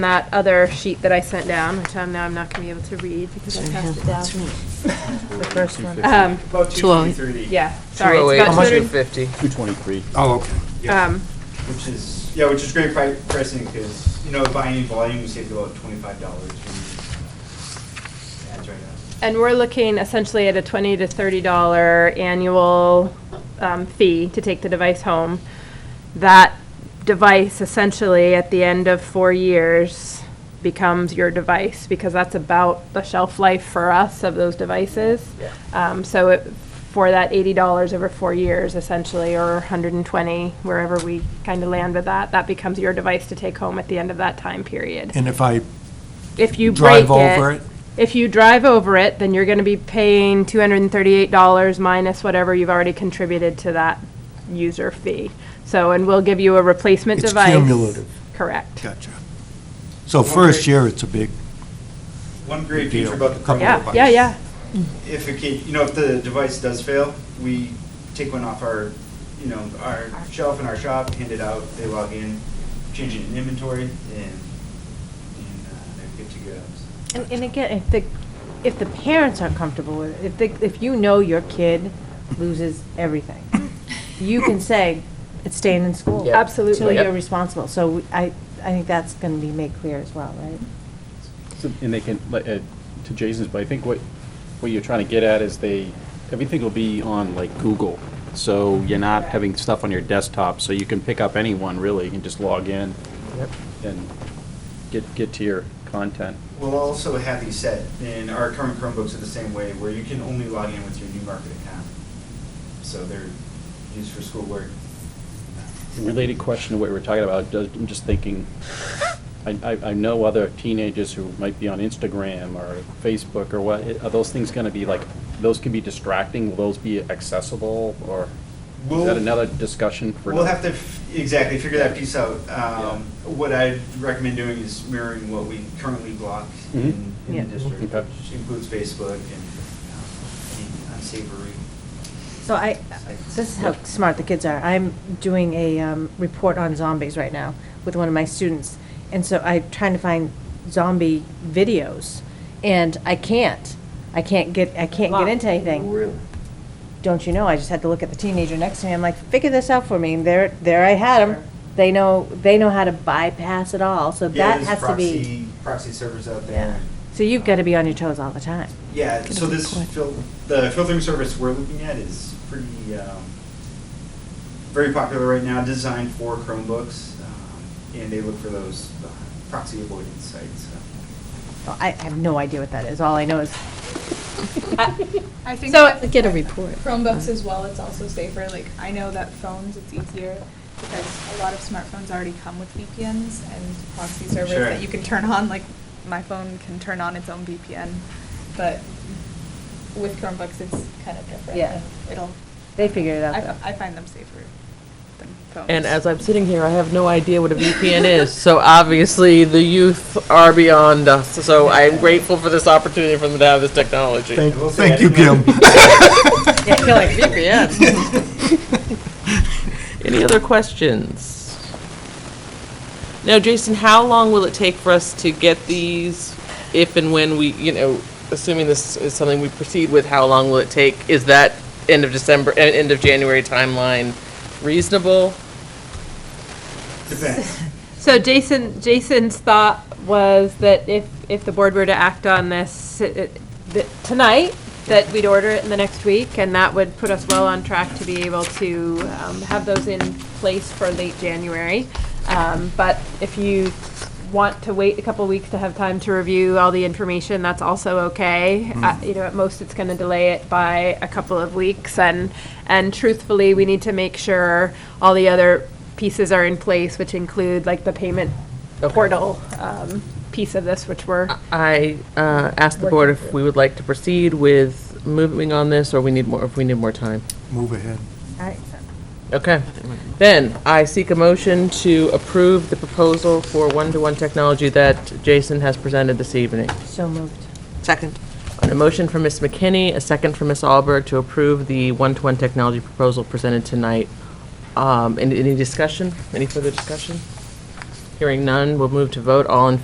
that other sheet that I sent down, which I'm, now I'm not gonna be able to read because I passed it down. The first one. Um, About Two oh eight. 250. yeah, sorry, it's 208, about two hundred, 250. 223. Oh, okay. um, Which is, yeah, which is great pri- pricing because, you know, buying in volume, we saved about twenty-five dollars. That's right now. and we're looking essentially at a twenty to thirty dollar annual, um, fee to take the device home. That device essentially at the end of four years becomes your device because that's about the shelf life for us of those devices. Yeah. Um, so it, for that eighty dollars over four years essentially, or hundred and twenty, wherever we kind of land with that, that becomes your device to take home at the end of that time period. And if I If you break drive over it, if you drive over it, then you're gonna be paying two hundred and thirty-eight dollars minus whatever you've already contributed to that user fee. So, and we'll give you a replacement it's device. cumulative. Correct. Gotcha. So first year, it's a big, One great Good deal. feature about the Couple Chromebook Yeah, yeah, yeah. if it can, you know, if the device does fail, we take one off our, you know, our shelf in our shop, hand it out, they log in, change it in inventory, and, and uh, they're good to go. And, and again, if the, if the parents aren't comfortable with it, if they, if you know your kid loses everything, you can say, it's staying in school. Yeah. Absolutely. Till Yep. you're responsible. So I, I think that's gonna be made clear as well, right? So- And they can, like, uh, to Jason's, but I think what, what you're trying to get at is they, everything will be on like Google. So you're not having stuff on your desktop, so you can pick up anyone really, you can just log in and get, get to your content. We'll also have these set, and our current Chromebooks are the same way, where you can only log in with your new market account. So they're used for schoolwork. Related question to what we were talking about, does- I'm just thinking, I, I I know other teenagers who might be on Instagram or Facebook or what, are those things going to be like, those can be distracting, will those be accessible, or is We'll- that another discussion for? We'll another- have to f- exactly figure that piece out. Um, What I'd recommend doing is mirroring what we currently block in Mm-hmm. Mhm. in Yeah. the district, Okay. which includes Facebook and um, any unsavory. So I, sites. this is how smart the kids are. I'm doing a um, report on zombies right now with one of my students. And so I'm trying to find zombie videos, and I can't. I can't get, I can't get into anything. Really? Don't you know, I just had to look at the teenager next to me. I'm like, figure this out for me. And there, there I had them. They know, they know how to bypass it all, so Yeah, that there's has to be. proxy- Proxy servers out Yeah. there. So you've got to be on your toes all the time. Yeah, so this, fil- the filtering service we're looking at is pretty, um, very popular right now, designed for Chromebooks. um, And they look for those uh, proxy avoidance sites. so. Well, I I have no idea what that is. All I know is I think So- that- Get a report. Chromebooks as well, it's also safer. Like, I know that phones, it's easier because a lot of smartphones already come with VPNs and proxy servers Sure. that you can turn on. Like, my phone can turn on its own VPN, but with Chromebooks, it's kind of different. Yeah. and It'll, they figured it out. I, though. I find them safer than phones. And as I'm sitting here, I have no idea what a VPN is. So obviously, the youth are beyond us. So I'm grateful for this opportunity for them to have this technology. thank, I will say I thank you, Kim. didn't Yeah, you're like, VPN. Any other questions? Now, Jason, how long will it take for us to get these, if and when we, you know, assuming this is something we proceed with, how long will it take? Is that end of December, eh, end of January timeline reasonable? Depends. So Jason, Jason's thought was that if, if the board were to act on this uh, th- tonight, that we'd order it in the next week, and that would put us well on track to be able to um, have those in place for late January. Um, But if you want to wait a couple weeks to have time to review all the information, that's also okay. Uh, You know, at most, it's going to delay it by a couple of weeks, and, and truthfully, we need to make sure all the other pieces are in place, which include like the payment Okay. portal um, piece of this, which we're, I uh, asked the board if we would like to proceed with moving on this, or we need more, if we need more time. Move ahead. I- Okay. Then I seek a motion to approve the proposal for one-to-one technology that Jason has presented this evening. So moved. Second. A motion from Ms. McKinney, a second from Ms. Alberg to approve the one-to-one technology proposal presented tonight. Um, Any any discussion? Any further discussion? Hearing none, we'll move to vote. All in